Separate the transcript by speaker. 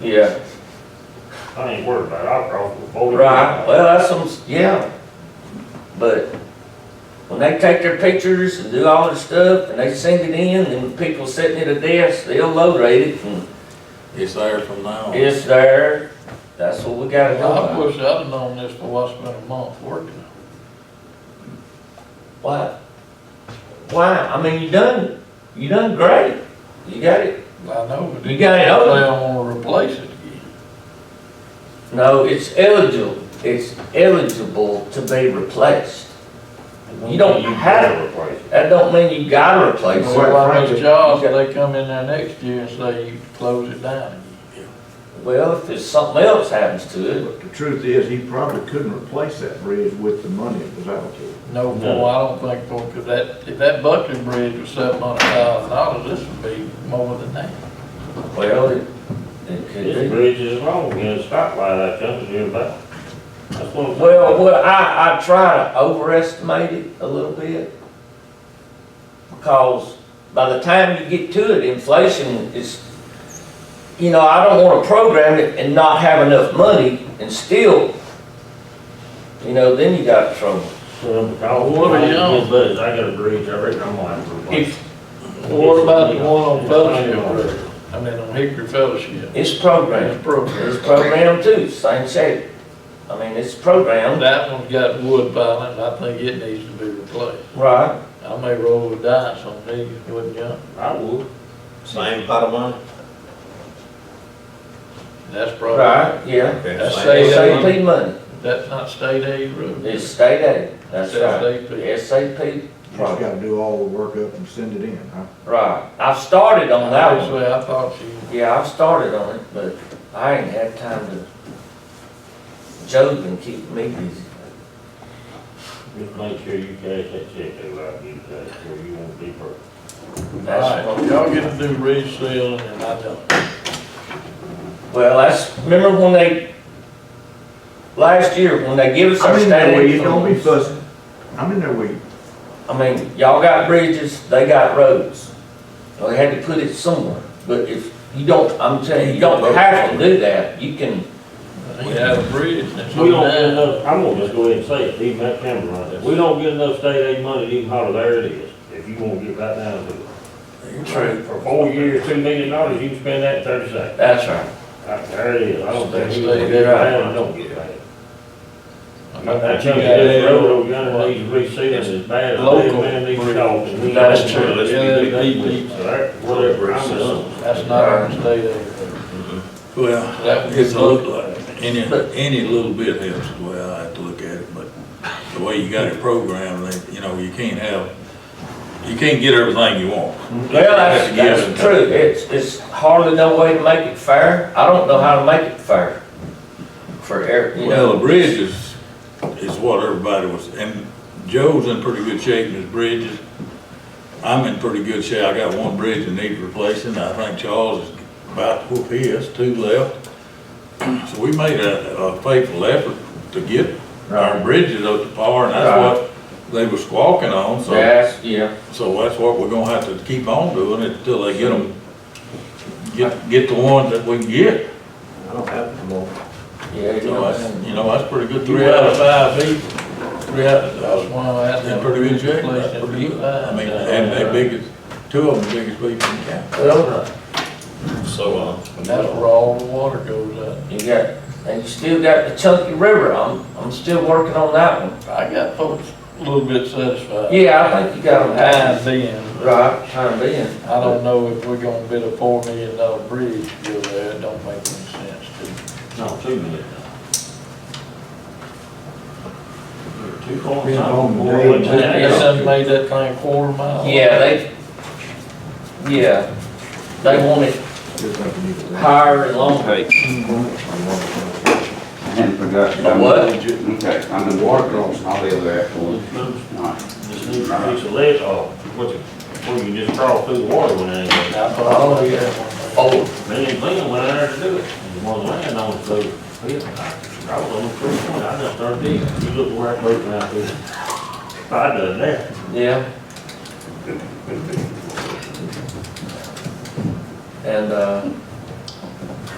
Speaker 1: Yeah,
Speaker 2: I ain't worried about it, I'll probably vote.
Speaker 1: right, well, that's some, yeah, but when they take their pictures and do all their stuff, and they sing it in, and people sitting at a desk, they'll low rate it, and
Speaker 3: It's there from now on.
Speaker 1: it's there, that's what we gotta go
Speaker 4: I
Speaker 1: by.
Speaker 4: wish I'd have known this for what's been a month working.
Speaker 1: Why? Why, I mean, you done, you done great, you got it,
Speaker 4: I know, but
Speaker 1: You got it over.
Speaker 4: They don't wanna replace it again.
Speaker 1: no, it's eligible, it's eligible to be replaced. You don't have
Speaker 2: to replace it.
Speaker 1: That don't mean you gotta replace it.
Speaker 4: Well, on
Speaker 2: frankly,
Speaker 4: those jobs, they come in there next year and say you close it down again.
Speaker 1: Well, if there's something else happens to it,
Speaker 5: But the truth is, he probably couldn't replace that bridge with the money that was allocated.
Speaker 4: No, boy, I don't think, boy, 'cause that, if that Buckley Bridge was seven hundred thousand dollars, this would be more than that.
Speaker 1: well, it, it
Speaker 2: This
Speaker 1: could be.
Speaker 2: bridge is wrong, you know, stoplight, I jumped you about. That's what I'm.
Speaker 1: Well, well, I, I try to overestimate it a little bit. Because by the time you get to it, inflation is, you know, I don't wanna program it and not have enough money and still, you know, then you got trouble.
Speaker 4: What are you on?
Speaker 2: But I got a bridge, I reckon I'm gonna have to replace.
Speaker 1: If
Speaker 2: it.
Speaker 4: What about the one on
Speaker 2: Yeah.
Speaker 4: Fellowship Road? I mean, on Hickory Fellowship,
Speaker 1: it's programmed,
Speaker 4: it's broken.
Speaker 1: it's programmed too, same shape. I mean, it's programmed,
Speaker 4: That one's got wood piling, I think it needs to be replaced.
Speaker 1: right?
Speaker 4: I may roll the dice on these, wouldn't you?
Speaker 2: I would.
Speaker 3: Same pot of money?
Speaker 4: That's probably,
Speaker 1: Right, yeah.
Speaker 4: That's
Speaker 3: Okay.
Speaker 4: safe.
Speaker 1: SAP money,
Speaker 4: that's not state aid road.
Speaker 1: it's state aid, that's right.
Speaker 4: SAP.
Speaker 1: SAP
Speaker 5: You just
Speaker 1: project,
Speaker 5: gotta do all the work up and send it in, huh?
Speaker 1: right. I've started on that one.
Speaker 4: Obviously, I thought she,
Speaker 1: Yeah, I've started on it, but I ain't had time to, Joe's been keeping me busy.
Speaker 2: Just make sure you cash that check, they will, you cash, or you won't be broke.
Speaker 1: That's
Speaker 4: alright,
Speaker 1: what,
Speaker 4: y'all get to do resealing and I don't.
Speaker 1: well, that's, remember when they, last year, when they give us our
Speaker 5: I'm in
Speaker 1: state
Speaker 5: there with
Speaker 1: aid
Speaker 5: you, don't be
Speaker 1: funds?
Speaker 5: fussing. I'm in there with you.
Speaker 1: I mean, y'all got bridges, they got roads. Well, They had to put it somewhere, but if you don't, I'm telling you, you don't have to do that, you can
Speaker 4: We have a bridge and it's.
Speaker 2: We don't get
Speaker 4: down.
Speaker 2: enough, I'm gonna just go ahead and say it, even that camera right there. We don't get enough state aid money to even holler, there it is, if you wanna get right down to it.
Speaker 1: True.
Speaker 2: For four years, two million dollars, you can spend that in thirty seconds.
Speaker 1: That's right.
Speaker 2: Right, There it is, I don't think we
Speaker 4: Stay
Speaker 2: can get
Speaker 1: there.
Speaker 2: right down, don't get right. That
Speaker 4: You
Speaker 2: chunk of
Speaker 4: got
Speaker 2: this
Speaker 4: that
Speaker 2: road over yonder needs resealing as bad as that
Speaker 4: Local
Speaker 2: man needs
Speaker 4: bridge.
Speaker 2: salt. and we
Speaker 1: That's
Speaker 2: don't
Speaker 1: true.
Speaker 2: want it.
Speaker 3: Let's
Speaker 2: Yeah,
Speaker 3: be
Speaker 2: they-
Speaker 3: good.
Speaker 2: they- that- Whatever, I'm done.
Speaker 4: That's not our state aid. road.
Speaker 3: Well,
Speaker 4: That was
Speaker 3: it's
Speaker 4: just
Speaker 3: a look like, any, any little bit helps the way I have to look at it, but the way you got it programmed, they, you know, you can't have, you can't get everything you want.
Speaker 1: Well, that's,
Speaker 3: You have to give
Speaker 1: that's true. It's, it's hardly no way to make it fair. I don't know how to make it fair. For every, you
Speaker 3: Well,
Speaker 1: know,
Speaker 3: the bridge is, is what everybody was, and Joe's in pretty good shape in his bridges. I'm in pretty good shape. I got one bridge that needs replacing. I think Charles is about to whoop his, two left. So we made a, a faithful effort to get our bridges up to par, and that's what they were squawking on, so,
Speaker 1: that's, yeah.
Speaker 3: so that's what we're gonna have to keep on doing until they get them, get, get the ones that we can get.
Speaker 6: I don't have them all.
Speaker 1: Yeah, you
Speaker 3: So
Speaker 1: know,
Speaker 3: that's, you know, that's pretty good.
Speaker 1: You
Speaker 3: Three out of five people, three out of,
Speaker 4: That's one of that.
Speaker 3: in pretty good shape,
Speaker 4: place
Speaker 3: that's
Speaker 4: that
Speaker 3: pretty good.
Speaker 4: we-
Speaker 3: I mean, and they biggest, two of them biggest people in town.
Speaker 1: well,
Speaker 3: So, uh.
Speaker 4: And that's where all the water goes out.
Speaker 1: you got, and you still got the Chunky River. I'm, I'm still working on that one.
Speaker 4: I got folks a little bit satisfied.
Speaker 1: Yeah, I think you got them half.
Speaker 4: Time being,
Speaker 1: Right, time being.
Speaker 4: I don't know if we're gonna build a four million dollar bridge to go there, it don't make any sense to.
Speaker 2: No, two million. Two
Speaker 5: Been home
Speaker 2: four,
Speaker 5: today.
Speaker 2: one, two.
Speaker 4: I guess I made that thing quarter mile.
Speaker 1: Yeah, they, yeah. They want it
Speaker 5: Just like you need to.
Speaker 1: higher and longer.
Speaker 7: I hadn't forgotten.
Speaker 1: A what?
Speaker 7: Okay, I'm in water crossing, I'll be over there afterwards.
Speaker 2: Just move-
Speaker 7: All right.
Speaker 2: just move a piece of lead off, what you, or you just crawl through the water when it ain't.
Speaker 4: I thought, oh, yeah.
Speaker 1: Oh,
Speaker 2: Million clean went out there to do it. And one land on it, so, oh, I was on the creek, one, I just started digging. You look where I broke out there. I done that.
Speaker 1: Yeah. And, uh,